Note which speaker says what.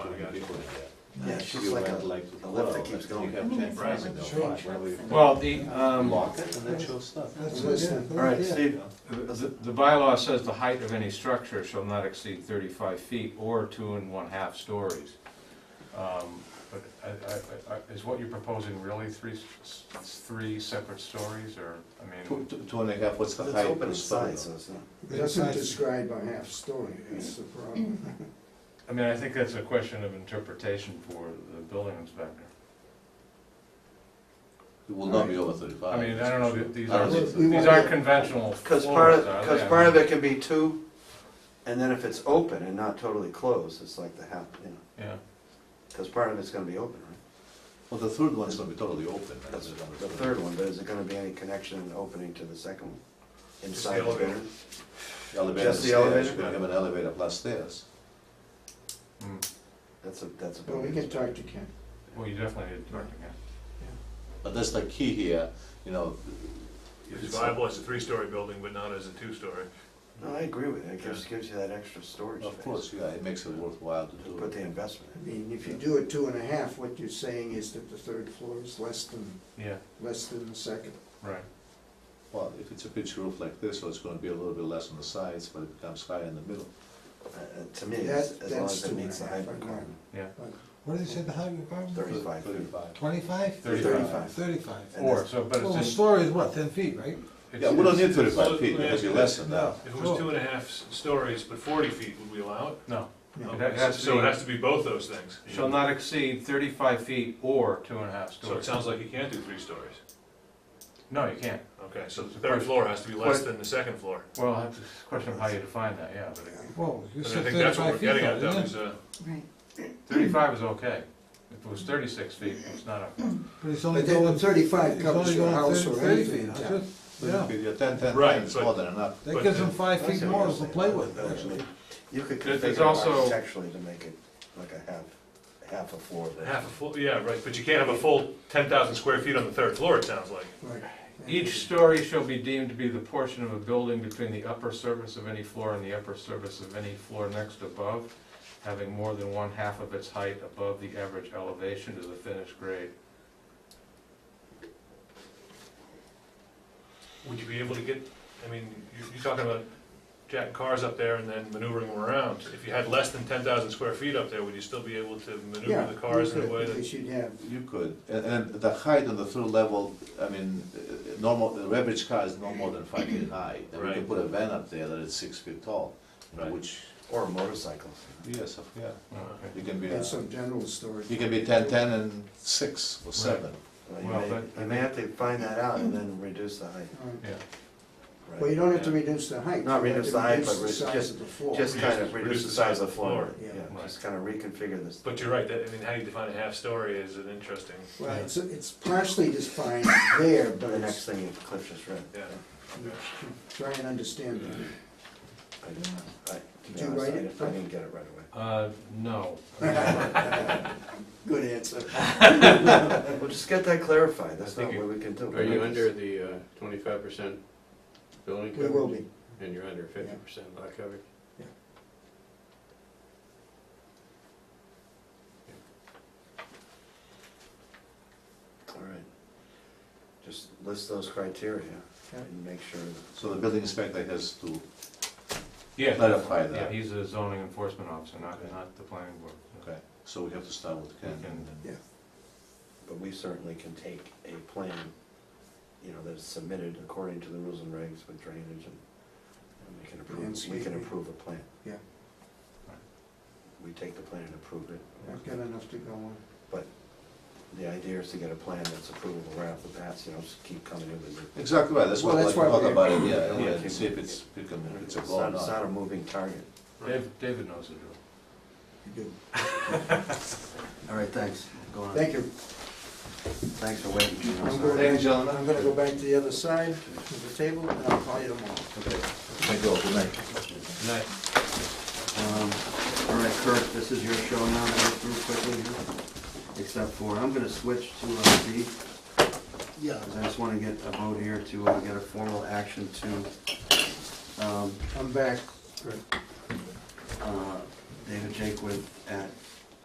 Speaker 1: be able to do that.
Speaker 2: Yeah, it's just like a, a lift that keeps going.
Speaker 1: You have ten
Speaker 3: prices
Speaker 1: thousand
Speaker 3: to
Speaker 1: dollars, why would you
Speaker 4: Well, the, um, all
Speaker 1: lock it and then show stuff?
Speaker 3: That's what, yeah.
Speaker 4: right, Steve, the the bylaw says the height of any structure shall not exceed thirty-five feet or two and one-half stories. Um, But I- I- I- is what you're proposing really three, s- s- three separate stories, or, I
Speaker 1: Two,
Speaker 4: mean,
Speaker 1: two- two and a half, what's the
Speaker 2: It's
Speaker 1: height?
Speaker 2: open
Speaker 1: of
Speaker 2: in
Speaker 1: the story?
Speaker 2: size, so it's not.
Speaker 3: It doesn't describe a half story, that's the problem.
Speaker 4: I mean, I think that's a question of interpretation for the building inspector.
Speaker 1: It will not be over
Speaker 2: Uh,
Speaker 1: thirty-five.
Speaker 4: I mean, I don't know, th- these
Speaker 1: I don't
Speaker 4: aren't,
Speaker 1: think so.
Speaker 4: these aren't conventional
Speaker 2: Because
Speaker 4: floors,
Speaker 2: part of,
Speaker 4: are
Speaker 2: because
Speaker 4: they?
Speaker 2: part of it can be two, and then if it's open and not totally closed, it's like the half, you know,
Speaker 4: Yeah,
Speaker 2: because part of it's gonna be open, right?
Speaker 1: Well, the third one's gonna be totally open. right?
Speaker 2: That's the third one, but is it gonna be any connection and opening to the second one?
Speaker 3: the
Speaker 2: Inside the building?
Speaker 1: The Elevator and
Speaker 2: Just the
Speaker 1: stairs,
Speaker 2: elevator?
Speaker 1: you're gonna have an elevator plus stairs.
Speaker 4: Hmm.
Speaker 2: That's a, that's a.
Speaker 3: But we can talk to Ken.
Speaker 4: well, you definitely need to talk to him.
Speaker 1: But that's the key here, you know.
Speaker 5: It's viable as a three-story building, but not as a two-story.
Speaker 2: No, I agree with it, it gives, gives you that extra storage space.
Speaker 1: Of course, yeah, it makes it worthwhile to do
Speaker 2: Put the
Speaker 1: it.
Speaker 2: investment
Speaker 3: I
Speaker 2: in.
Speaker 3: mean, if you do a two and a half, what you're saying is that the third floor is less than,
Speaker 4: Yeah,
Speaker 3: less than the second.
Speaker 4: right.
Speaker 1: Well, if it's a pitch roof like this, so it's gonna be a little bit less on the sides, but it becomes higher in the middle.
Speaker 2: Uh, uh, To me, as
Speaker 3: That-
Speaker 2: as long
Speaker 3: that's
Speaker 2: as it
Speaker 3: two
Speaker 2: meets the
Speaker 3: and a half,
Speaker 2: height
Speaker 3: I agree.
Speaker 2: requirement,
Speaker 6: What did they say the height requirement? was?
Speaker 2: thirty-five feet.
Speaker 1: Thirty-five.
Speaker 6: Twenty-five?
Speaker 4: Thirty-five.
Speaker 6: Thirty-five.
Speaker 2: And
Speaker 4: Or,
Speaker 2: that's-
Speaker 4: so, but
Speaker 6: Well, a
Speaker 4: it's in.
Speaker 6: story is what, ten feet, right?
Speaker 4: it's-
Speaker 1: Yeah, we don't need
Speaker 4: it's-
Speaker 1: thirty-five
Speaker 5: Well,
Speaker 1: feet,
Speaker 5: let me
Speaker 1: it could
Speaker 5: ask
Speaker 1: be
Speaker 5: you
Speaker 1: less than that.
Speaker 5: If it was two and a half s- stories, but forty feet, would we allow it?
Speaker 4: No,
Speaker 3: No.
Speaker 4: It ha- has to
Speaker 5: So it
Speaker 4: be-
Speaker 5: has to be both those things.
Speaker 4: shall not exceed thirty-five feet or two and a half
Speaker 5: So it
Speaker 4: stories.
Speaker 5: sounds like you can't do three stories.
Speaker 4: No, you can't.
Speaker 5: Okay, so the third floor has to be less than the second floor.
Speaker 4: Well, that's a question of how you define that, yeah, but it-
Speaker 6: Whoa, you
Speaker 5: And I
Speaker 6: said
Speaker 5: think that's what
Speaker 6: thirty-five
Speaker 5: we're
Speaker 6: feet
Speaker 5: getting at,
Speaker 6: though,
Speaker 5: though,
Speaker 6: didn't
Speaker 5: is,
Speaker 6: it?
Speaker 5: uh,
Speaker 7: Right.
Speaker 4: thirty-five is okay. If it was thirty-six feet, it's not okay.
Speaker 6: But it's only
Speaker 3: But then
Speaker 6: going, it's
Speaker 3: thirty-five
Speaker 6: only
Speaker 3: covers your
Speaker 6: going
Speaker 3: house
Speaker 6: thirty,
Speaker 3: or
Speaker 6: thirty
Speaker 3: anything.
Speaker 6: feet,
Speaker 3: in
Speaker 6: that's
Speaker 3: town.
Speaker 6: it, yeah.
Speaker 1: Yeah, ten, ten, ten
Speaker 5: Right,
Speaker 1: is
Speaker 5: but-
Speaker 1: more than enough.
Speaker 6: That
Speaker 5: But
Speaker 6: gives
Speaker 5: the-
Speaker 6: them five
Speaker 2: I
Speaker 6: feet
Speaker 2: see what
Speaker 6: more
Speaker 2: you're
Speaker 6: to
Speaker 2: saying.
Speaker 6: play with,
Speaker 2: That's
Speaker 6: actually.
Speaker 2: right. You could
Speaker 4: There's- there's
Speaker 2: configure
Speaker 4: also-
Speaker 2: architecturally to make it like a half, half a floor.
Speaker 5: uh, half a full, yeah, right, but you can't have a full ten thousand square feet on the third floor, it sounds like.
Speaker 3: Right.
Speaker 4: Each story shall be deemed to be the portion of a building between the upper surface of any floor and the upper surface of any floor next above, having more than one half of its height above the average elevation to the finished grade.
Speaker 5: Would you be able to get, I mean, you- you're talking about jacking cars up there and then maneuvering them around. If you had less than ten thousand square feet up there, would you still be able to
Speaker 3: Yeah,
Speaker 5: maneuver the cars in a
Speaker 3: you could,
Speaker 5: way that?
Speaker 3: Because you'd have,
Speaker 1: You could, and, and the height on the third level, I mean, uh, normal, the average car is no more than five feet high. And we can
Speaker 5: Right.
Speaker 1: put a van up there that is six feet tall, you know,
Speaker 5: Right.
Speaker 1: which,
Speaker 2: Or motorcycles.
Speaker 1: yes, of- yeah,
Speaker 5: Uh-huh.
Speaker 4: Okay.
Speaker 1: you can be,
Speaker 3: have
Speaker 1: uh,
Speaker 3: some general storage.
Speaker 1: you can be ten, ten and six or seven.
Speaker 2: Well, You
Speaker 4: Well,
Speaker 2: may,
Speaker 4: but-
Speaker 2: you may have to find that out and then reduce the height.
Speaker 3: All right.
Speaker 4: Yeah,
Speaker 3: Well, you don't have to reduce the height.
Speaker 2: Not
Speaker 3: you have
Speaker 2: reduce
Speaker 3: to
Speaker 2: the height,
Speaker 3: reduce
Speaker 2: but
Speaker 3: the
Speaker 2: re-
Speaker 3: size
Speaker 2: just-
Speaker 3: of the floor.
Speaker 2: Just
Speaker 5: Reduce-
Speaker 2: kind of reduce the size of the floor,
Speaker 3: floor.
Speaker 2: yeah,
Speaker 3: Yeah.
Speaker 2: just kind of reconfigure this.
Speaker 5: But you're right, that, I mean, how you define a half story is an interesting,
Speaker 3: Well, it's, it's partially defined there,
Speaker 2: But
Speaker 3: but
Speaker 2: the next
Speaker 3: it's,
Speaker 2: thing you- Cliff just read.
Speaker 5: yeah.
Speaker 3: try and understand that.
Speaker 2: I didn't- I- to be
Speaker 3: Did you
Speaker 2: honest,
Speaker 3: write
Speaker 2: I
Speaker 3: it,
Speaker 2: didn't- I didn't get it right away.
Speaker 4: uh, no.
Speaker 3: Good answer.
Speaker 2: We'll just get that clarified, that's
Speaker 8: I
Speaker 2: not
Speaker 8: think
Speaker 2: what we can do.
Speaker 8: Are you under the uh, twenty-five percent building
Speaker 3: We
Speaker 8: coverage?
Speaker 3: will be.
Speaker 8: And you're under fifty percent lot coverage?
Speaker 3: Yeah.
Speaker 2: All right. Just list those criteria
Speaker 3: Yeah.
Speaker 2: and make sure. that-
Speaker 1: So the building inspector has to
Speaker 4: Yeah.
Speaker 1: clarify
Speaker 4: Yeah,
Speaker 1: that,
Speaker 4: he's a zoning enforcement officer, not, not the planning board.
Speaker 1: okay? So we have to start with Ken.
Speaker 4: And-
Speaker 2: But we certainly can take a plan, you know, that's submitted according to the rules and regs with drainage and and we can approve, we can
Speaker 3: Landscaping.
Speaker 2: approve a plan.
Speaker 3: Yeah.
Speaker 2: We take the plan and approve it.
Speaker 3: I've got enough to go on.
Speaker 2: The idea is to get a plan that's approvable right off the bat, so you don't just keep coming in with it.
Speaker 5: uh,
Speaker 1: Exactly right, that's what
Speaker 3: Well,
Speaker 1: I
Speaker 3: that's
Speaker 1: want to talk
Speaker 3: why
Speaker 1: about, it, yeah,
Speaker 2: Yeah.
Speaker 1: and see if it's, become- if it's a
Speaker 2: It's
Speaker 1: goal or
Speaker 2: not, it's
Speaker 1: not.
Speaker 2: not a moving target.
Speaker 4: Dave- David knows the
Speaker 3: You
Speaker 4: drill.
Speaker 3: do.
Speaker 2: All right, thanks. Go on.
Speaker 3: Thank you.
Speaker 2: Thanks for waiting. Gino.
Speaker 3: I'm
Speaker 2: Sorry.
Speaker 3: going,
Speaker 1: you, gentlemen.
Speaker 3: I'm gonna go back to the other side of the table and I'll call you tomorrow.
Speaker 2: Thank you, all. good night.
Speaker 4: Nice.
Speaker 2: Um, All right, Kurt, this is your show now, to go through quickly here, except for, I'm gonna switch to uh, B. Yeah. I just wanna get a vote here to uh, get a formal action to, um,
Speaker 3: I'm back.
Speaker 2: uh, David Jakewood at